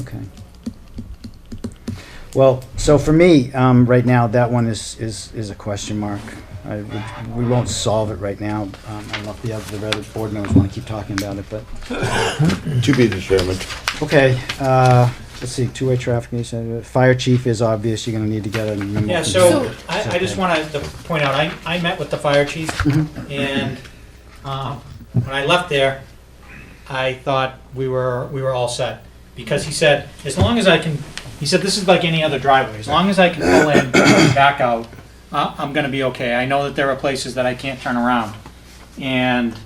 Okay. Well, so for me, um, right now, that one is, is, is a question mark. I, would- we won't solve it right now. Um, I don't know if the other, the other board members want to keep talking about it, but, To be determined. okay, uh, let's see, two-way traffic, you said, uh, fire chief is obvious, you're gonna need to get a memo. Yeah, from- so I, I just okay. wanted to point out, I, I met with the fire chief and, uh, when I left there, I thought we were, we were all set. Because he said, as long as I can, he said, this is like any other driveway, as long as I can pull in, back out, I, I'm gonna be okay. I know that there are places that I can't turn around. And,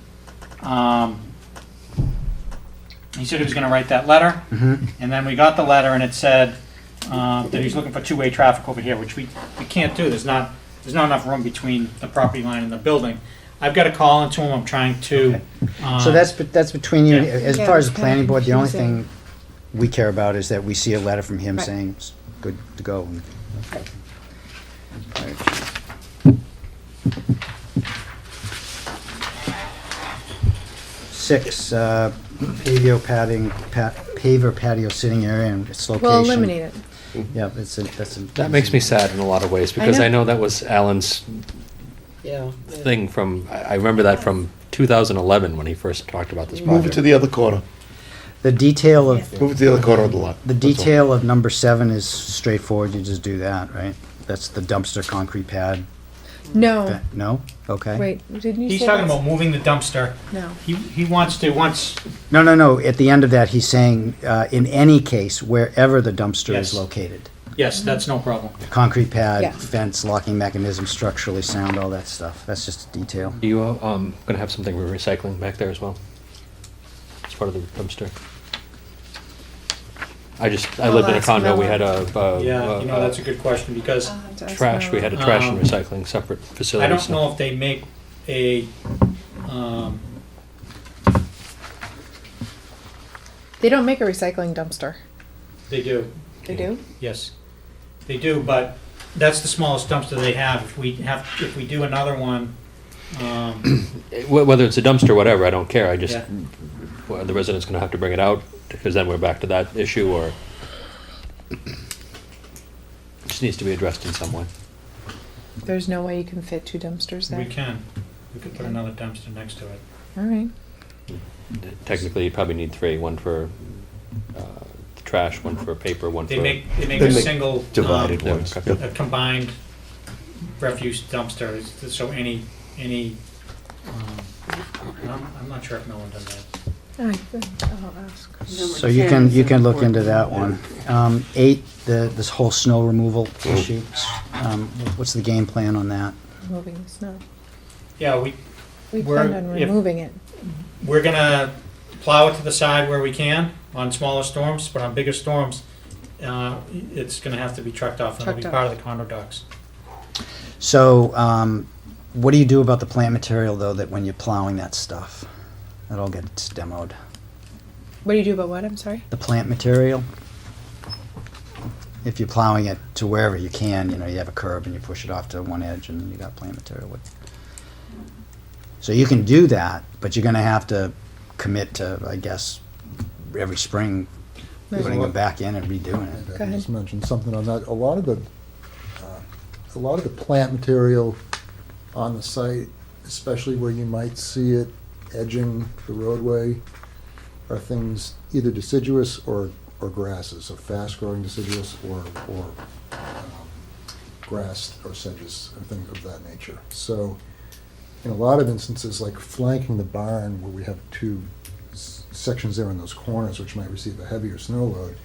um, he said he was gonna write that letter. Mhm. And then we got the letter and it said uh, that he's looking for two-way traffic over here, which we, we can't do. There's not, there's not enough room between the property line and the building. I've got to call into him. I'm trying to. uh, So that's, bet- that's between you, and- as Yeah. far as the Yeah, planning board, the only confusing. thing we care about is that we see a letter from him Right. saying, it's good to go. and- Six, uh, patio padding, pa- paver patio sitting area and its location. We'll eliminate it. Yeah, it's, a- that's. a- That makes me sad in a lot of ways because know. I know, that was Alan's Yeah. thing from. I I remember that from 2011 when he first talked about this project. Move it to the other corner. The detail of, Move it to the other corner of the lot. The That's all. detail of number seven is straightforward, you just do that, right? That's the dumpster concrete pad, No, that- no? Okay. wait, didn't you say? He's talking that's- about moving the dumpster. No. He, he wants to, once, No, no, no, at the end of that, he's saying, uh, in any case, wherever the dumpster is Yes. located. yes, that's no problem. Concrete Yeah. pad, fence, locking mechanism, structurally sound, all that stuff, that's just a detail. you uh, um, going to have something for recycling back there as well? As part of the dumpster. I just I Well, lived in a that's condo. We mellow. had a, uh Yeah, uh, you know, that's a good question because I'll have to ask trash. We Marla. had a trash Um, and recycling separate facility. I don't so- know if they make a, um, They don't make a recycling dumpster. they do, They do? yes. They do, but that's the smallest dumpster they have. If we have, if we do another one, um, Wh- Whether it's a dumpster or whatever, I don't care. I just Yeah. well, the resident's going to have to bring it out because then we're back to that issue or. It just needs to be addressed in some way. There's no way you can fit two dumpsters We there. can. We could put another dumpster next to it. All right. Technically, you probably need three, one for uh, trash, one for paper, one They for. make, they make They a make single. um, Divided Yeah, ones. okay. Yep. A combined refuse dumpster, is- so any, any, um, I'm, I'm not sure if Millen does that. I think I'll ask. So you can, you can look into that one. Um, eight, the, this whole snow removal issue, um, what's the game plan on that? Moving the snow. Yeah, we, We Where- planned on if- removing it. we're gonna plow it to the side where we can on smaller storms, but on bigger storms, uh, it's gonna have to be trucked off and it'll be Trucked part of the condo docks. So, um, what do you do about the plant material though, that when you're plowing that stuff, that all gets demoed? What do you do about what? I'm sorry? The plant material? If you're plowing it to wherever you can, you know, you have a curb and you push it off to one edge and you got plant material. What- So you can do that, but you're gonna have to commit to, I guess, every spring, There's a putting lot- them back in and redoing it. Go I ahead. just mentioned something on that. A lot of the, uh, a lot of the plant material on the site, especially where you might see it edging the roadway, are things either deciduous or, or grasses, so fast-growing deciduous or, or um, grass or sedges and things of that nature. So in a lot of instances, like flanking the barn where we have two s- sections there in those corners, which might receive a heavier snow load,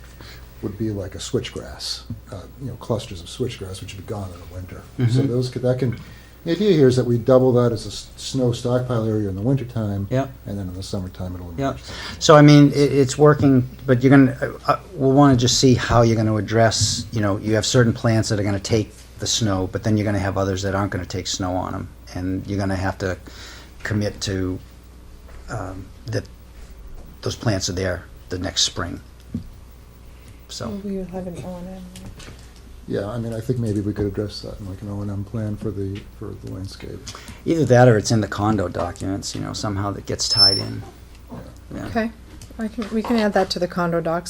would be like a switchgrass, uh, you know, clusters of switchgrass, which would be gone in the winter. So those could, that can, the idea here is that we double that as a s- snow stockpile area in the wintertime. Yep. And then in the summertime, it'll. Yeah. emerge. So I mean, it, it's working, but you're gonna, uh, uh, we'll wanna just see how you're gonna address, you know, you have certain plants that are gonna take the snow, but then you're gonna have others that aren't gonna take snow on them. And you're gonna have to commit to, um, that those plants are there the next spring. So, We will have an O and M. Yeah, I mean, I think maybe we could address that in like an O and M plan for the, for the landscape. either that or it's in the condo documents, you know, somehow that gets tied in. Yeah. Okay. I can, we can add that to the condo docs